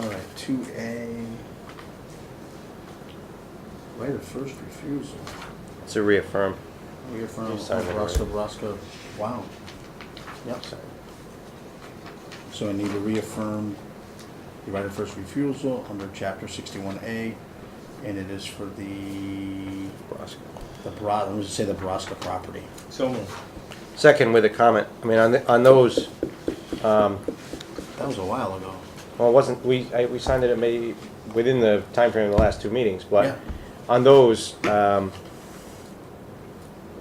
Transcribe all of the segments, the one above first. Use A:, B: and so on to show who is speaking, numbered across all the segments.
A: All right, two A. Right of first refusal.
B: It's a reaffirm.
A: Reaffirm
B: You signed it
A: of Roscoe,
B: already.
A: Roscoe, wow. Yep. So I need to reaffirm the right of first refusal under chapter sixty-one A, and it is for the,
B: Roscoe.
A: the Bra, let me just say the Baraska property.
C: So moved.
B: Second with a comment. I mean, on, the- on those, um,
A: That was a while ago.
B: well, it wasn't, we, I, we signed it at maybe within the time frame of the last two meetings,
A: Yeah.
B: but on those, um,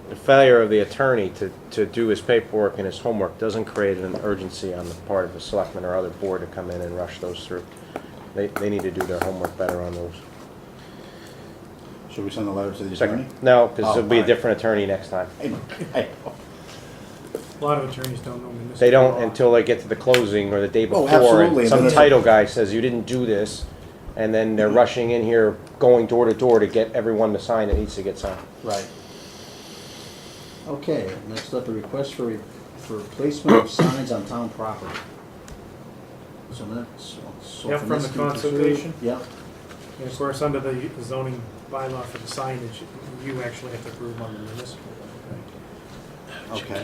B: the failure of the attorney to, to do his paperwork and his homework doesn't create an urgency on the part of the selectman or other board to come in and rush those through. They, they need to do their homework better on those.
A: Should we send a letter to the attorney?
B: Second, no, because
A: Oh,
B: it'll be a
A: alright.
B: different attorney next time.
A: I know, I know.
D: A lot of attorneys don't know municipal
B: They don't
D: law.
B: until they get to the closing or the day
A: Oh,
B: before.
A: absolutely,
B: and
A: and
B: Some
A: then-
B: title guy says, you didn't do this, and then they're rushing in here, going door to door to get everyone to sign that needs to get signed.
A: Right. Okay, next up, a request for, re- for replacement of signs on town property. So that's. so
D: Yeah, from the
A: Swampscott to-
D: consultation?
A: Yeah,
D: And of course, under the zoning bylaw for the signage, you actually have to approve on the municipal. law,
A: okay.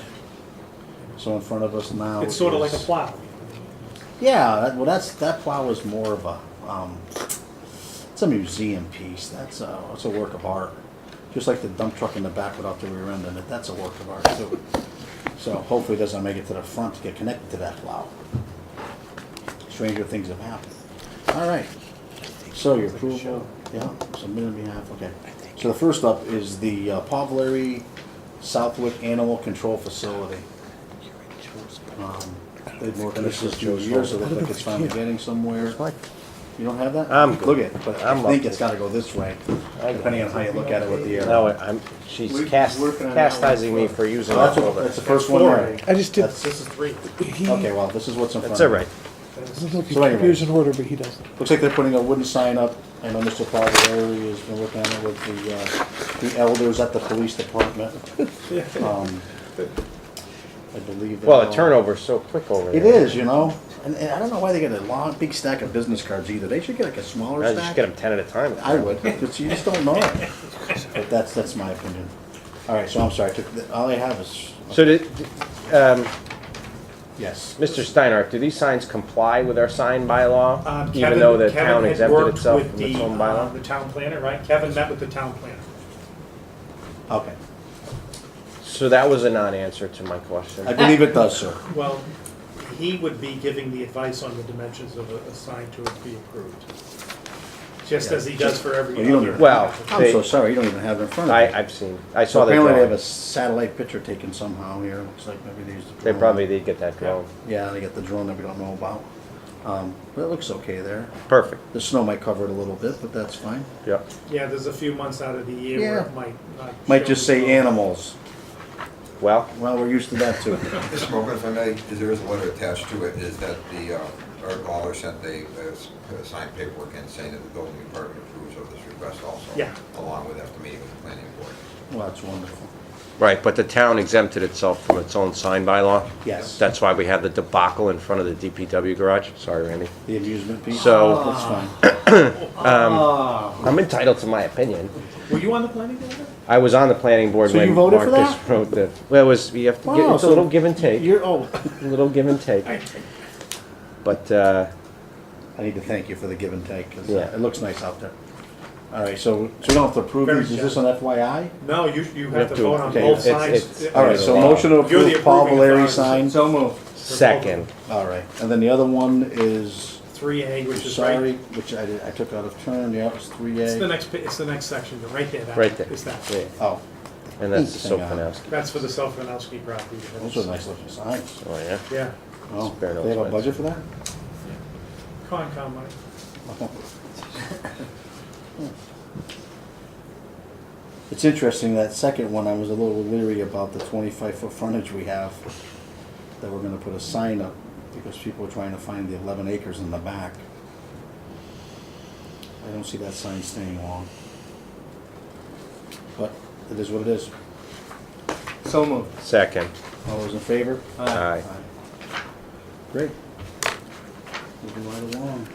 A: So in front of us now.
D: right? It's sort of like a
A: is-
D: plow.
A: Yeah, that, well, that's, that plow is more of a, um, it's a museum piece, that's a, it's a work of art. Just like the dump truck in the back without the rear end in it, that's a work of art too. So hopefully it doesn't make it to the front to get connected to that plow. Stranger things have happened. All right, so your approval, yeah, submitted on behalf, okay. So the first up is the uh, Pavlari Southwick Animal Control Facility. Um, They've worked on this for two years, so it looks like it's finally getting somewhere. You don't have that?
B: I'm good.
A: Look at, but I
B: I'm
A: think
B: up.
A: it's gotta go this way,
B: I-
A: depending on how you look at it with the uh,
B: No,
A: arrow.
B: I'm, she's
C: We've been
B: cast,
C: working on that one
B: chastising me for using
A: That's,
B: that
A: what-
B: over.
A: that's the first one. there.
E: I just did.
A: That's-
D: This is three.
E: He,
A: Okay, well, this is what's in front of
B: That's all right.
E: Doesn't look
A: So
E: like
A: anyway.
E: he appears in order, but he doesn't.
A: Looks like they're putting a wooden sign up. I know Mr. Fogarty has been working on it with the, uh, the elders at the police department. Um, I believe. that-
B: Well, the turnover's so quick over there.
A: It is, you know, and, and I don't know why they get a long, big stack of business cards either. They should get like a smaller
B: I
A: stack.
B: just get them ten at a time.
A: I would, but you just don't know. But that's, that's my opinion. All right, so I'm sorry, I took the- all I have is,
B: So did, um,
A: yes.
B: Mr. Steinhardt, do these signs comply with our sign
D: Uh,
B: bylaw? Even
D: Kevin-
B: though the
D: Kevin
B: town
D: had
B: exempted
D: worked
B: itself
D: with
B: from its
D: the,
B: own
D: uh,
B: bylaw?
D: The town planner, right? Kevin met with the town planner.
A: Okay,
B: So that was a non-answer to my question.
A: I believe it does, sir.
D: Well, he would be giving the advice on the dimensions of a, a sign to be approved. Just as he does for every
A: Well, you don't
D: other.
A: do
B: Well,
A: I'm
B: they-
A: so sorry, you don't even have it in front of you.
B: I, I've seen, I
A: So
B: saw the
A: apparently they have
B: drawing.
A: a satellite picture taken somehow here, looks like maybe they used the
B: They
A: drone.
B: probably did get that drone.
A: Yeah, they got the drone that we don't know about. Um, but it looks okay there.
B: Perfect,
A: The snow might cover it a little bit, but that's fine.
B: yep.
D: Yeah, there's a few months out of the year where
A: Yeah.
D: it might not.
A: Might
D: show
A: just
D: the-
A: say animals.
B: Well,
A: Well, we're used to that too.
F: Mr. Mogul, if I may, there is a letter attached to it, is that the, uh, Art Lawler sent a, uh, s- uh, signed paperwork in saying that the building department approves of this request also.
D: Yeah.
F: Along with after meeting with the planning board.
A: Well, that's wonderful.
B: right, but the town exempted itself from its own sign bylaw.
A: Yes.
B: That's why we had the debacle in front of the DPW garage. Sorry, Randy.
A: The amusement piece.
B: So-
A: That's fine. Ah.
B: I'm entitled to my opinion.
D: Were you on the planning board?
B: I was on the planning board
A: So
B: when
A: you voted for
B: Marcus
A: that?
B: wrote the, well, it was, you have to, give-
A: Wow,
B: it's a
A: so
B: little give and take,
A: You're, oh,
B: a little give and take. But, uh,
A: I need to thank you for the give and take, because
B: Yeah.
A: it looks nice out there. All right, so, so we don't have to approve
D: Very
A: these, is this an FYI?
D: No, you, you
B: have
D: have to
B: to-
D: vote on
A: okay,
B: it's-
D: both sides.
B: it's-
A: All right, so motion to
D: You're the
A: approve Paul
D: approving
A: Valeri
D: authority.
A: sign.
C: So moved.
B: second,
A: All right, and then the other one is,
D: Three A, which is
A: sorry,
D: right,
A: which I, did- I took out of turn, yeah, it was three
D: it's the
A: A.
D: next, pa- it's the next section, but right there, that
B: right there.
D: is that.
B: Yeah.
A: Oh,
B: And that's the
A: Hang on.
B: Sokolowski.
D: That's for the Self-Renowski property.
A: those are nice looking signs.
B: Oh, yeah?
D: Yeah,
A: Oh,
B: Spare no
A: they have a
B: expense.
A: budget for that?
D: Concom money.
A: It's interesting, that second one, I was a little leery about the twenty-five foot frontage we have, that we're gonna put a sign up, because people are trying to find the eleven acres in the back. I don't see that sign staying long. But it is what it is.
C: So moved.
B: Second.
A: All those in favor?
B: Aye.
A: Great. Moving right along.